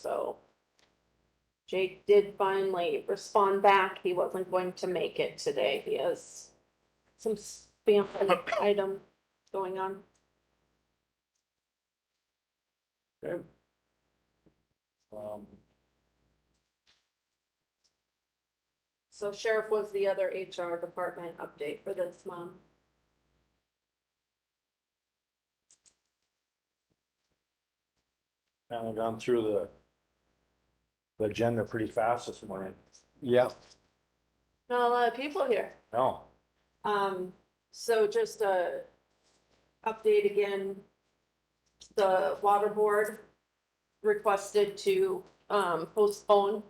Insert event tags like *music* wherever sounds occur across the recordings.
So Jake did finally respond back. He wasn't going to make it today. He has some spam item going on. Okay. Um, So sheriff was the other HR department update for this month. kind of gone through the the agenda pretty fast this morning. Yeah. Not a lot of people here. No, Um, so just a update again. The water board requested to, um, postpone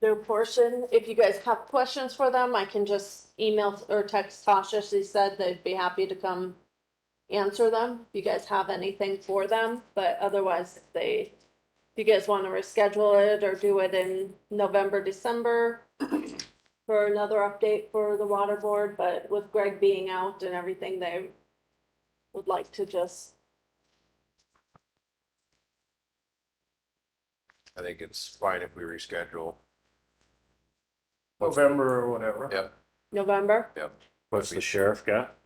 their portion. If you guys have questions for them, I can just email or text Tasha. She said they'd be happy to come answer them. If you guys have anything for them, but otherwise they, if you guys want to reschedule it or do it in November, December, for another update for the water board, but with Greg being out and everything, they would like to just, I think it's fine if we reschedule. November or whatever. Yeah. November, What's the sheriff got?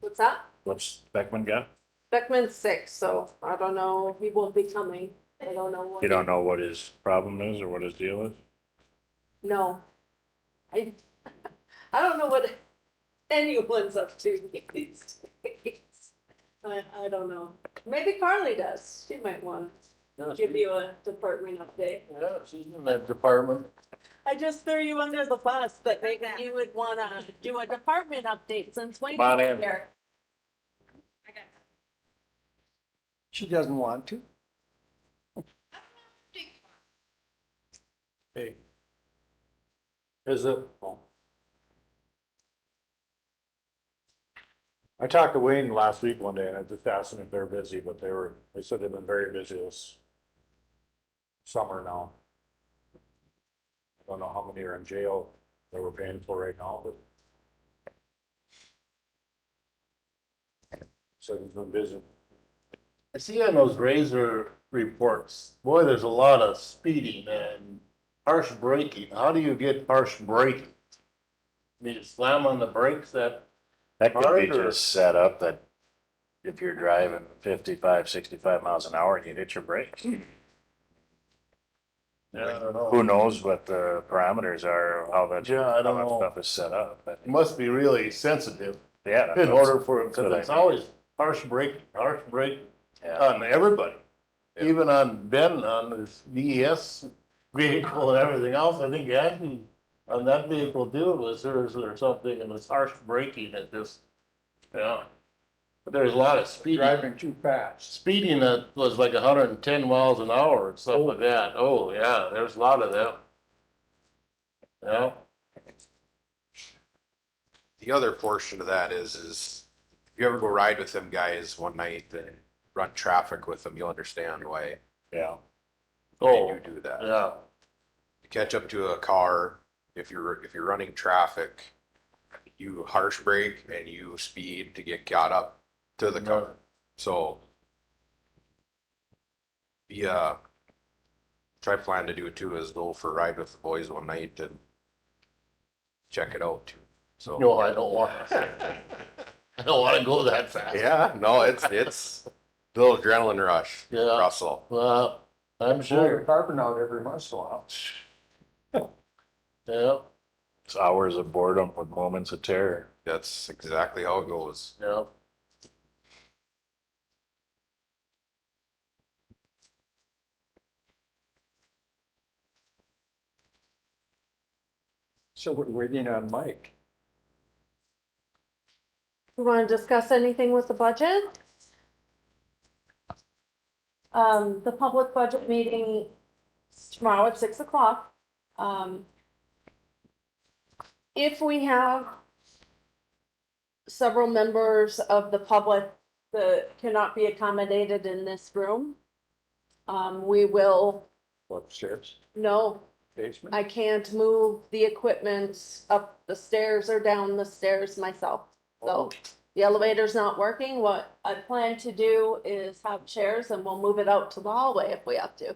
what's that? What's Beckman got? Beckman's sick, so I don't know, he won't be coming, I don't know. what- You don't know what his problem is or what his deal is? No. I, *laughs* I don't know what anyone's up to these days. I, I don't know, maybe Carly does, she might want to give you a department update. Yeah, she's in that department. I just threw you under the bus, but maybe you would wanna do a department update since Wayne's Come on in. here. She doesn't want to. Hey. Is it? oh. I talked to Wayne last week one day and I just asked him if they're busy, but they were, they said they've been very busy this summer now. I don't know how many are in jail that we're paying for right now, but. So he's been busy. I see on those razor reports, boy, there's a lot of speeding and harsh braking. How do you get harsh braking? You just slam on the brakes that, That could be Hard or- just set up that if you're driving 55, 65 miles an hour and you hit your brakes. I don't know. Who knows what the parameters are, how that, Yeah, I how don't that know. stuff is set up, but It must be really sensitive yeah. that's- in order for, that's what because I it's mean. always harsh braking, harsh braking Yeah. on everybody. Even on Ben, on his DES vehicle and everything else, I think Aggie, on that vehicle too, it was hers or something, and it's harsh braking at this, yeah. But there's a lot of speeding, Driving too fast. speeding that was like hundred and ten miles an hour and stuff like that, oh, yeah, there's a lot of them. Yeah, The other portion of that is, is if you ever go ride with them guys one night and run traffic with them, you'll understand why Yeah. oh, they do do that. yeah, To catch up to a car, if you're, if you're running traffic, you harsh brake and you speed to get caught up to the car. So yeah, try plan to do it too is go for a ride with the boys one night and check it out. too. So. no, I don't want. *laughs* I don't wanna go that fast. Yeah, no, it's it's a little adrenaline rush, Yeah, Russell. well, I'm Blow your sure, carbon out every once in a while. yeah, It's hours of boredom with moments of terror. That's exactly how it goes. yeah. So we're waiting on Mike. You wanna discuss anything with the budget? Um, the public budget meeting is tomorrow at six o'clock. Um, if we have several members of the public that cannot be accommodated in this room, um, we will, Upstairs, no, basement. I can't move the equipment up the stairs or down the stairs myself, so the elevator's not working, what I plan to do is have chairs and we'll move it out to the hallway if we have to.